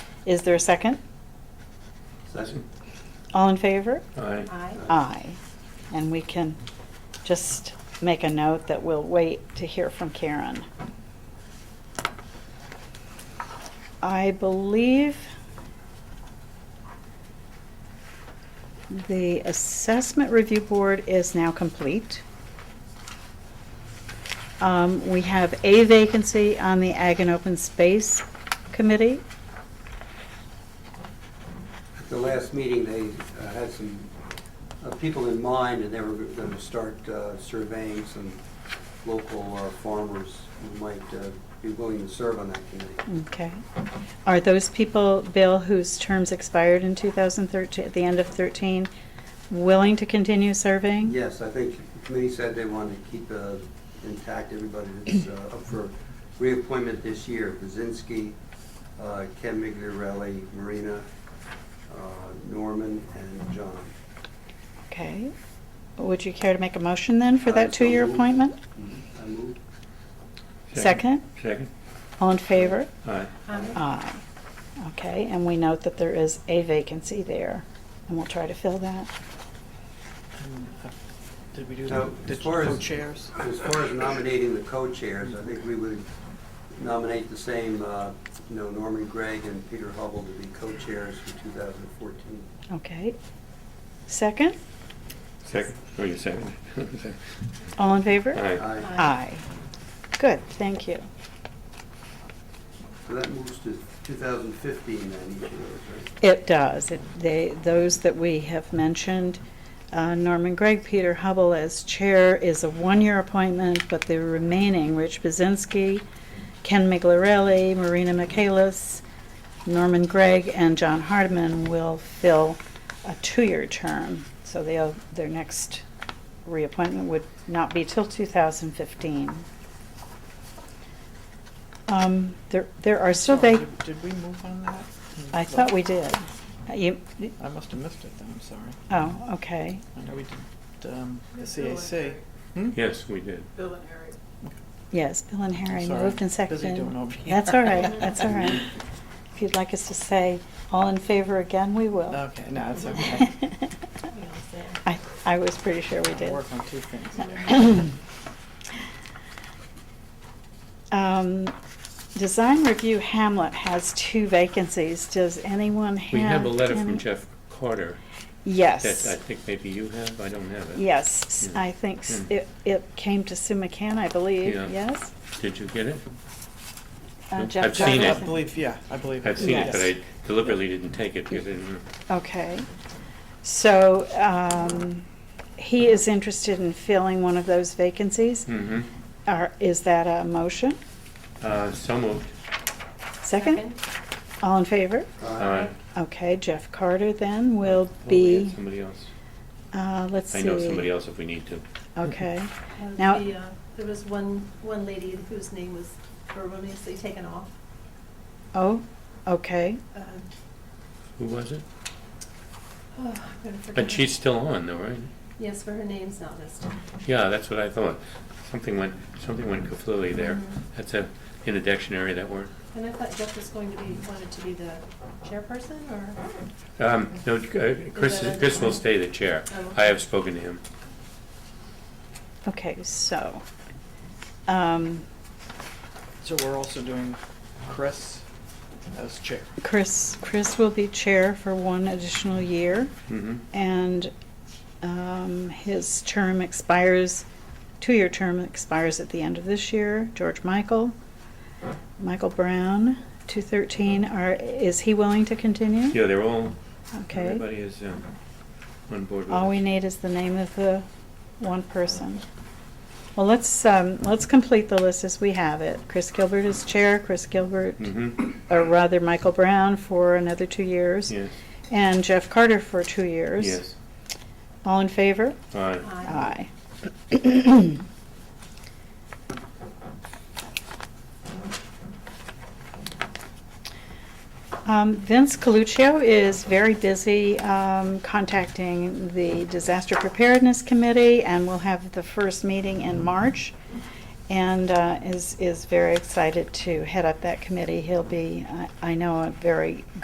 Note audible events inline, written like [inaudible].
Is there a second? Second. All in favor? Aye. Aye. Aye. And we can just make a note that we'll wait to hear from Karen. I believe the Assessment Review Board is now complete. Um, We have a vacancy on the Ag and Open Space Committee. At the last meeting, they uh, had some uh, people in mind, and they were going to start uh, surveying some local uh, farmers who might uh, be willing to serve on that committee. Okay. Are those people, Bill, whose terms expired in 2013, at the end of 13, willing to continue serving? Yes, I think the committee said they wanted to keep uh, intact everybody that's uh, up for reappointment this year. Buzinski, uh, Ken Migliarelli, Marina, uh, Norman, and John. Okay. Would you care to make a motion then for I that so two-year move. appointment? I move. Second? Second. All in favor? Aye. Aye. Aye. Okay, and we note that there is a vacancy there, and we'll try to fill that. Did we do Now, the as the far as- co-chairs? As far as nominating the co-chairs, I think we would nominate the same, uh, you know, Norman Gregg and Peter Hubble to be co-chairs for 2014. Okay. Second? Second. Oh, [laughs] you second. All in favor? Aye. Aye. Aye. Good, thank you. So that moves to 2015 then, each of those, It does. It- They, those that we have mentioned, uh, Norman Gregg, Peter Hubble as chair is a one-year appointment, but the remaining, Rich Buzinski, Ken Miglarelli, Marina Michaelis, Norman Gregg, and John Hardiman will fill a two-year term. So they'll, their next reappointment would not be till 2015. Um, There, there are still Sorry, vac, did- Did we move on that? I thought we did. Uh, You, I must have missed it then, I'm sorry. oh, okay. I know we did um, the CAC. Yes, we did. Bill and Harry. Yes, Bill and Harry I'm sorry. moved and Busy seconded. doing over here. That's all right, [laughs] that's all right. If you'd like us to say all in favor again, we will. Okay, no, it's okay. I, I was pretty sure [laughs] we I did. Work on two things. Um, Design Review Hamlet has two vacancies. Does anyone have? We have a letter from any- Jeff Carter that I Yes, think maybe you have, I don't have it. yes. Yeah. I think s- Hmm. it, it came to Sue McCann, I believe, Yeah. yes? Did you get it? Uh, I've Jeff seen it. I Johnson. believe, yeah, I believe. I've seen it, but Yes. I deliberately didn't take it because I didn't. Okay. So um, he is interested in filling one of those vacancies. Mm-hmm. Are- Is that a motion? Uh, so moved. Second? All in favor? right? Okay, Jeff Carter then will Uh, Oh, we had be, Somebody else. uh, let's see. I know somebody else if we need to. Okay. And Now- the, uh, There was one, one lady whose name was erroneously taken off. Oh, okay. Uh, Who was it? oh, I'm gonna forget her. But she's still on though, right? Yes, but her name's not listed. Yeah, that's what I thought. Something went, something went kaflooey there. Mm-hmm. Mhm. That's a, in the dictionary, that word. And I thought Jeff was going to be, wanted to be the chairperson or? Um, no, uh, Chris, that- Chris will stay the chair. Oh, okay. I have spoken to him. Okay, so, um, So we're also doing Chris as chair. Chris, Chris will be chair for one additional year. Mhm. And um, his term expires, two-year term expires at the end of this year. George Michael, Michael Brown, 213, are, is he willing to continue? Yeah, they're all, Okay. everybody is um, on board with All we us. need is the name of the one person. Well, let's, um, let's complete the list as we have it. Chris Gilbert is chair, Chris Gilbert, Mhm. or rather, Michael Brown for another two years. Yes, And Jeff Carter for two years. yes. All in favor? All right. Aye. Um, Vince Coluccio is very busy um, contacting the Disaster Preparedness Committee, and we'll have the first meeting in March, and uh, is, is very excited to head up that committee. He'll be, I I know, a very